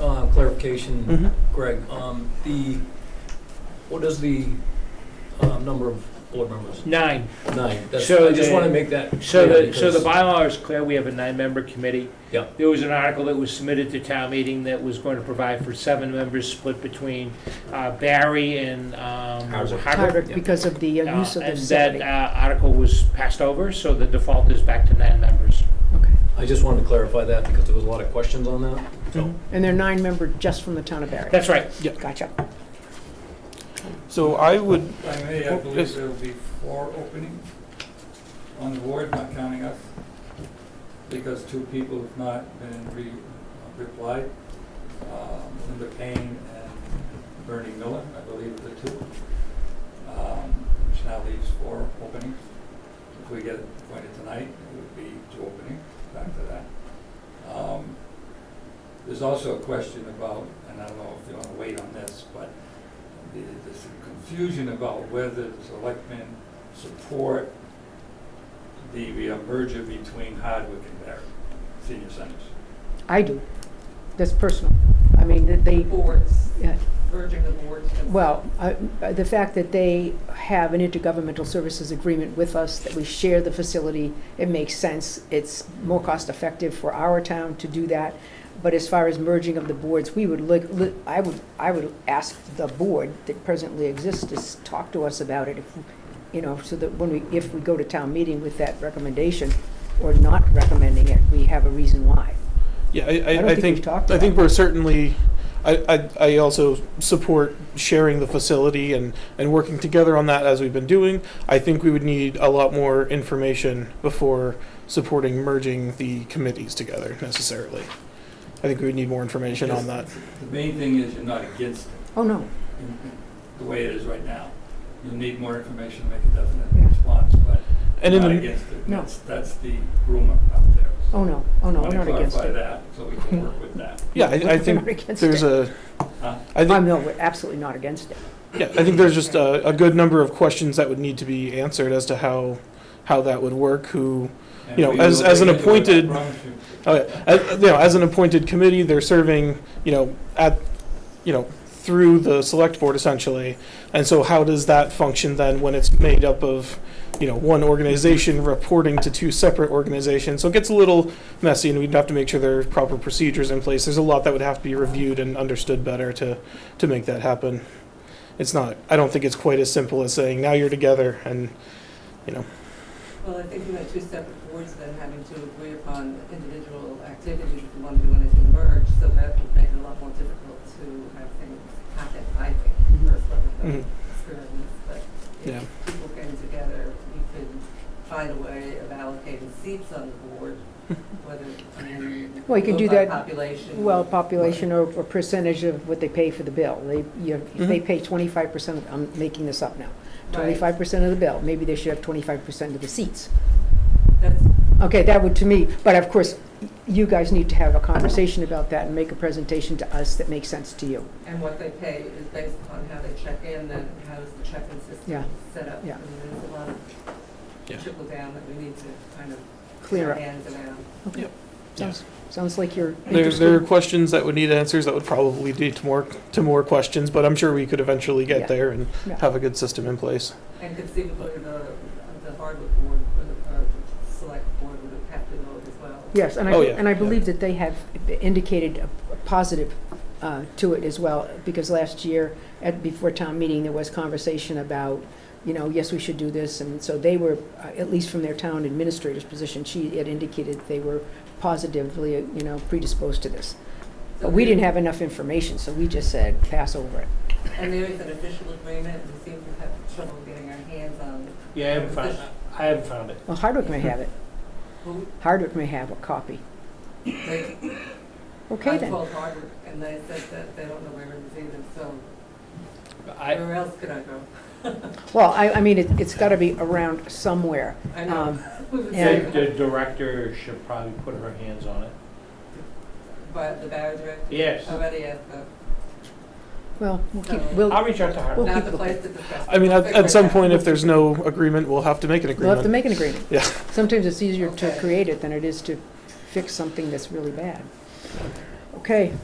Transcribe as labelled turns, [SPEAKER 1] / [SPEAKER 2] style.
[SPEAKER 1] Uh, clarification,
[SPEAKER 2] Mhm.
[SPEAKER 3] Mm-hmm.
[SPEAKER 1] Greg. Um, the, what is the, um, number of board members?
[SPEAKER 3] Nine.
[SPEAKER 1] Nine. That's,
[SPEAKER 3] So
[SPEAKER 1] I just
[SPEAKER 3] the-
[SPEAKER 1] want to make that.
[SPEAKER 3] So
[SPEAKER 1] clear
[SPEAKER 3] the, so the
[SPEAKER 1] because-
[SPEAKER 3] bylaw is clear, we have a nine-member committee.
[SPEAKER 1] Yeah.
[SPEAKER 3] There was an article that was submitted to town meeting that was going to provide for seven members split between uh, Barry and um,
[SPEAKER 1] Hardwick.
[SPEAKER 3] Hardwick.
[SPEAKER 2] Hardwick,
[SPEAKER 1] yeah.
[SPEAKER 2] because of the uh,
[SPEAKER 3] Uh,
[SPEAKER 2] use of the
[SPEAKER 3] And that
[SPEAKER 2] facility.
[SPEAKER 3] uh, article was passed over, so the default is back to nine members.
[SPEAKER 2] Okay.
[SPEAKER 1] I just wanted to clarify that because there was a lot of questions on that. So,
[SPEAKER 2] And they're nine member just from the town of Barry.
[SPEAKER 3] That's right.
[SPEAKER 2] Gotcha.
[SPEAKER 4] So I would,
[SPEAKER 5] I may,
[SPEAKER 4] Oh,
[SPEAKER 5] I
[SPEAKER 4] yes.
[SPEAKER 5] believe there will be four openings on the board, not counting us, because two people have not been re, replied, um, Linda Payne and Bernie Miller, I believe are the two. Um, which now leaves four openings. If we get appointed tonight, it would be two openings, back to that. Um, There's also a question about, and I don't know if you wanna wait on this, but the- there's confusion about whether the selectmen support the uh, merger between Hardwick and Barry Senior Centers.
[SPEAKER 2] I do. That's personal. I mean, that they,
[SPEAKER 6] boards,
[SPEAKER 2] Yeah.
[SPEAKER 6] merging the boards. and-
[SPEAKER 2] well, I- uh, the fact that they have an intergovernmental services agreement with us, that we share the facility, it makes sense. It's more cost effective for our town to do that. But as far as merging of the boards, we would, look- look- I would, I would ask the board that presently exists to s- talk to us about it, if- you know, so that when we, if we go to town meeting with that recommendation or not recommending it, we have a reason why.
[SPEAKER 4] yeah, I,
[SPEAKER 2] I
[SPEAKER 4] I,
[SPEAKER 2] don't
[SPEAKER 4] I
[SPEAKER 2] think we've
[SPEAKER 4] think,
[SPEAKER 2] talked
[SPEAKER 4] I think
[SPEAKER 2] about
[SPEAKER 4] we're certainly, I, I, I also support sharing the facility and, and working together on that as we've been doing. I think we would need a lot more information before supporting merging the committees together necessarily. I think we would need more information on that.
[SPEAKER 5] The main thing is you're not against it,
[SPEAKER 2] Oh, no,
[SPEAKER 5] in- in the way it is right now. You'll need more information to make a
[SPEAKER 2] Yeah.
[SPEAKER 5] definite response, but
[SPEAKER 4] And
[SPEAKER 5] you're
[SPEAKER 4] in
[SPEAKER 5] not
[SPEAKER 4] the,
[SPEAKER 5] against it.
[SPEAKER 2] No.
[SPEAKER 5] That's, that's the rumor out there.
[SPEAKER 2] oh, no, oh, no, I'm not against
[SPEAKER 5] Want
[SPEAKER 2] it.
[SPEAKER 5] to clarify that, so we can work with that.
[SPEAKER 4] yeah, I, I think there's a,
[SPEAKER 5] Huh?
[SPEAKER 4] I
[SPEAKER 2] I'm
[SPEAKER 4] think,
[SPEAKER 2] no, we're absolutely not against it.
[SPEAKER 4] yeah, I think there's just a, a good number of questions that would need to be answered as to how, how that would work, who,
[SPEAKER 5] And
[SPEAKER 4] You know,
[SPEAKER 5] we
[SPEAKER 4] as-
[SPEAKER 5] will
[SPEAKER 4] as an
[SPEAKER 5] take it, I
[SPEAKER 4] appointed-
[SPEAKER 5] promise you.
[SPEAKER 4] Oh, yeah. As, you know, as an appointed committee, they're serving, you know, at, you know, through the select board essentially. And so how does that function then when it's made up of, you know, one organization reporting to two separate organizations? So it gets a little messy and we'd have to make sure there are proper procedures in place. There's a lot that would have to be reviewed and understood better to, to make that happen. It's not, I don't think it's quite as simple as saying, now you're together and, you know,
[SPEAKER 6] Well, I think you had two separate boards then having to agree upon individual activities if you want to do anything merged, so that would make it a lot more difficult to have things happen, I think,
[SPEAKER 2] Mhm.
[SPEAKER 6] personally,
[SPEAKER 4] Mhm.
[SPEAKER 6] with the experience. uh, But
[SPEAKER 4] Yeah.
[SPEAKER 6] if people came together, we could find a way of allocating seats on the board, whether, I mean,
[SPEAKER 2] Well, you could
[SPEAKER 6] go
[SPEAKER 2] do
[SPEAKER 6] by
[SPEAKER 2] that-
[SPEAKER 6] Population.
[SPEAKER 2] Well, population or or percentage of what they pay for the bill. They, you, know, if they pay twenty-five percent, I'm making this up now,
[SPEAKER 6] Right.
[SPEAKER 2] twenty-five percent of the bill, maybe they should have twenty-five percent of the seats.
[SPEAKER 6] That's
[SPEAKER 2] Okay, that would, to me, but of course, you guys need to have a conversation about that and make a presentation to us that makes sense to you.
[SPEAKER 6] And what they pay is based upon how they check in, then how is the check-in
[SPEAKER 2] Yeah.
[SPEAKER 6] system set up?
[SPEAKER 2] Yeah.
[SPEAKER 6] I mean, there's a lot
[SPEAKER 4] Yeah.
[SPEAKER 6] of trickle down that we need to kind of.
[SPEAKER 2] Clear up.
[SPEAKER 6] Hands around.
[SPEAKER 2] Sounds, sounds like you're
[SPEAKER 4] There, there are
[SPEAKER 2] interested.
[SPEAKER 4] questions that would need answers that would probably lead to more, to more questions, but I'm sure we could eventually
[SPEAKER 2] Yeah.
[SPEAKER 4] get there and
[SPEAKER 2] Yeah.
[SPEAKER 4] have a good system in place.
[SPEAKER 6] And conceivably, the, the hardwood board, or the, or the select board would have to vote as well.
[SPEAKER 2] Yes, and I,
[SPEAKER 4] Oh, yeah,
[SPEAKER 2] and I
[SPEAKER 4] yeah.
[SPEAKER 2] believe that they have indicated a a positive uh, to it as well, because last year, at, before town meeting, there was conversation about, you know, yes, we should do this, and so they were, uh, at least from their town administrator's position, she had indicated they were positively, uh, you know, predisposed to this.
[SPEAKER 6] So
[SPEAKER 2] But we didn't
[SPEAKER 6] there-
[SPEAKER 2] have enough information, so we just said, pass over it.
[SPEAKER 6] And there is an official agreement, we seem to have trouble getting our hands on,
[SPEAKER 3] Yeah, I haven't found, I haven't found it.
[SPEAKER 2] Well, Hardwick may have it,
[SPEAKER 6] who,
[SPEAKER 2] Hardwick may have a copy.
[SPEAKER 6] they,
[SPEAKER 2] Okay
[SPEAKER 6] I
[SPEAKER 2] then,
[SPEAKER 6] called hardwood, and they said that they don't know where it is either, so
[SPEAKER 3] I,
[SPEAKER 6] where else could I go?
[SPEAKER 2] well, I, I mean, it- it's gotta be around somewhere.
[SPEAKER 6] I know.
[SPEAKER 2] Um,
[SPEAKER 6] We would
[SPEAKER 2] Yeah.
[SPEAKER 6] say
[SPEAKER 3] the the director should probably put her hands on it.
[SPEAKER 6] But the Barry director
[SPEAKER 3] Yes.
[SPEAKER 2] Uh,
[SPEAKER 6] already at the,
[SPEAKER 2] Well, we'll keep,
[SPEAKER 6] So-
[SPEAKER 2] we'll,
[SPEAKER 3] I'll reach out to her.
[SPEAKER 2] Well,
[SPEAKER 6] not
[SPEAKER 2] people
[SPEAKER 6] the place to discuss.
[SPEAKER 4] I mean, at,
[SPEAKER 6] Figure
[SPEAKER 4] at
[SPEAKER 6] it
[SPEAKER 4] some
[SPEAKER 6] out.
[SPEAKER 4] point, if there's no agreement, we'll have to make an
[SPEAKER 2] We'll have to
[SPEAKER 4] agreement.
[SPEAKER 2] make an agreement.
[SPEAKER 4] Yeah.
[SPEAKER 2] Sometimes it's easier to
[SPEAKER 6] Okay.
[SPEAKER 2] create it than it is to fix something that's really bad. Okay,